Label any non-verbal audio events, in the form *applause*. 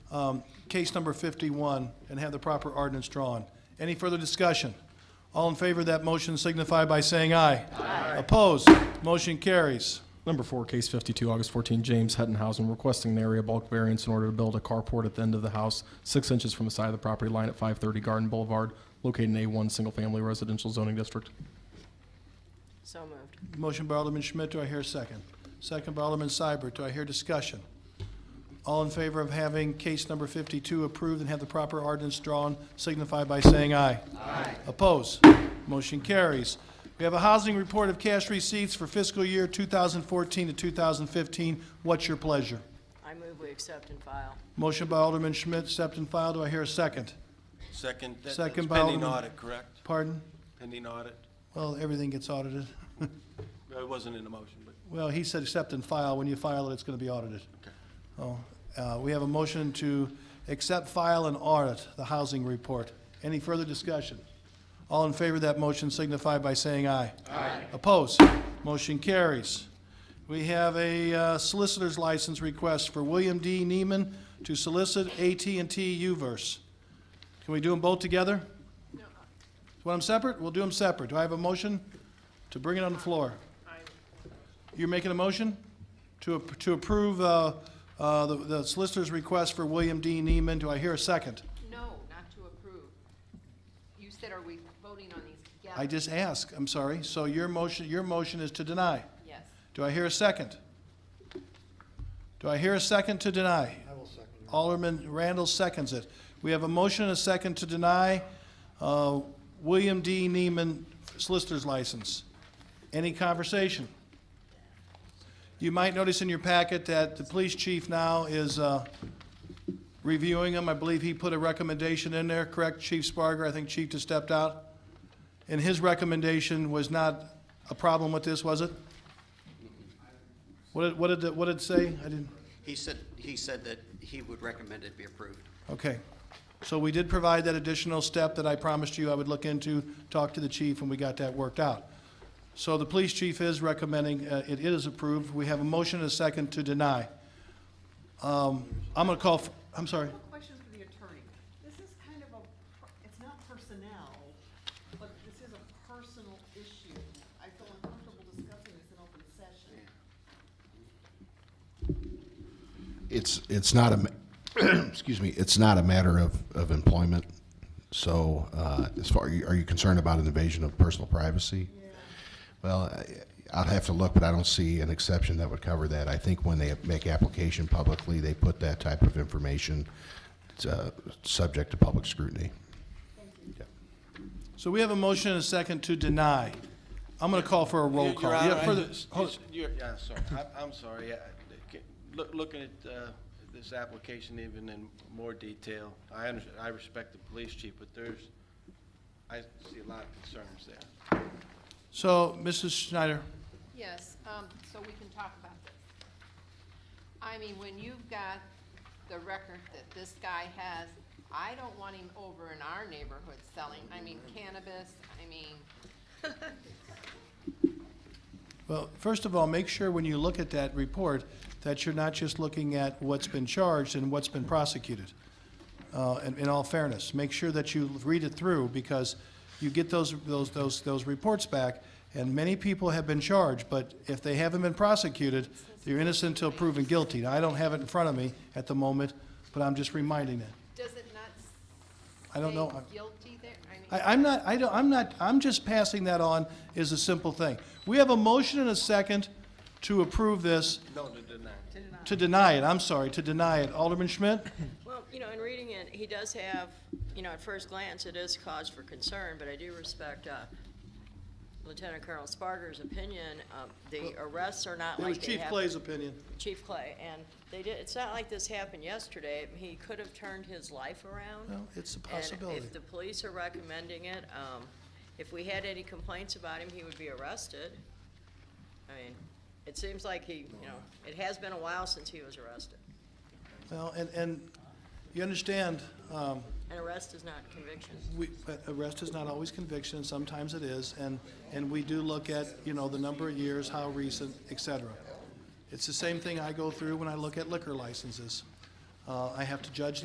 um, case number 51 and have the proper ordinance drawn. Any further discussion? All in favor of that motion signify by saying aye. Aye. Opposed? Motion carries. Number four, case 52, August 14, James Hettenhausen requesting an area bulk variance in order to build a carport at the end of the house, six inches from the side of the property line at 530 Garden Boulevard, located in A1 Single Family Residential Zoning District. So moved. Motion by Alderman Schmidt, do I hear a second? Second by Alderman Seibert, do I hear discussion? All in favor of having case number 52 approved and have the proper ordinance drawn, signify by saying aye. Aye. Oppose? Motion carries. We have a housing report of cash receipts for fiscal year 2014 to 2015. What's your pleasure? I move we accept and file. Motion by Alderman Schmidt, accept and file, do I hear a second? Second, that- that's Second by pending Alderman- audit, correct? Pardon? Pending audit? Well, everything gets audited. It wasn't in the motion, but Well, he said accept and file. When you file it, it's going to be audited. Oh, uh, we have a motion to accept, file, and audit the housing report. Any further discussion? All in favor of that motion signify by saying aye. Aye. Opposed? Motion carries. We have a uh, solicitor's license request for William D. Neiman to solicit at and T UVerse. Can we do them both together? No. Want them separate? We'll do them separate. Do I have a motion to bring it on the floor? You're making a motion to, ap- to approve, uh, uh, the- the solicitor's request for William D. Neiman. Do I hear a second? No, not to approve. You said, are we voting on these together? I just asked, I'm sorry. So your motion, your motion is to deny. Yes. Do I hear a second? Do I hear a second to deny? I will second. Alderman Randall seconds it. We have a motion and a second to deny, uh, William D. Neiman solicitor's license. Any conversation? You might notice in your packet that the police chief now is, uh, reviewing them. I believe he put a recommendation in there, correct, Chief Sparger? I think Chief just stepped out. And his recommendation was not a problem with this, was it? What did, what did, it- what did it say? I didn't, He said, he said that he would recommend it be approved. okay. So we did provide that additional step that I promised you I would look into, talk to the chief, and we got that worked out. So the police chief is recommending, uh, it is approved. We have a motion and a second to deny. Um, I'm gonna call, f- I'm sorry. I have a question for the attorney. This is kind of a, per- it's not personnel, but this is a personal issue. I feel uncomfortable discussing this in open session. It's, it's not a, ma- *clears throat* excuse me, it's not a matter of, of employment. So, uh, as far, are you- are you concerned about an invasion of personal privacy? Well, I- I'd have to look, but I don't see an exception that would cover that. I think when they make application publicly, they put that type of information, uh, subject to public scrutiny. So we have a motion and a second to deny. I'm gonna call for a roll Your- call. Your Yeah, Honor, I- further- it's- hold- it's- you're- Yeah, sorry, I- I'm sorry. I- I- look- Looking at uh, this application even in more detail, I under- I respect the police chief, but there's, I see a lot of concerns there. So, Mrs. Schneider, Yes, um, so we can talk about this. I mean, when you've got the record that this guy has, I don't want him over in our neighborhood selling, I mean cannabis, I mean, well, first of all, make sure when you look at that report that you're not just looking at what's been charged and what's been prosecuted. Uh, in, in all fairness, make sure that you read it through because you get those, those, those, those reports back and many people have been charged, but if they haven't been prosecuted, they're innocent until proven guilty. Now, I don't have it in front of me at the moment, but I'm just reminding that. does it not I don't know. say guilty there? I mean. I, I'm not, I don't, I'm not, I'm just passing that on as a simple thing. We have a motion and a second to approve this, No, to deny. to deny it, I'm sorry, to deny it. Alderman Schmidt? Well, you know, in reading it, he does have, you know, at first glance, it is cause for concern, but I do respect uh, Lieutenant Colonel Sparger's opinion. Uh, The arrests are not It was like they Chief happened. Clay's opinion. Chief Clay, and they did, it's not like this happened yesterday. He could have turned his life around. Well, it's a And possibility. if the police are recommending it, um, if we had any complaints about him, he would be arrested. I mean, it seems like he, you know, it has been a while since he was arrested. Well, and, and you understand, um, An arrest is not conviction. we, but arrest is not always conviction, and sometimes it is, and, and we do look at, you know, the number of years, how recent, et cetera. It's the same thing I go through when I look at liquor licenses. Uh, I have to judge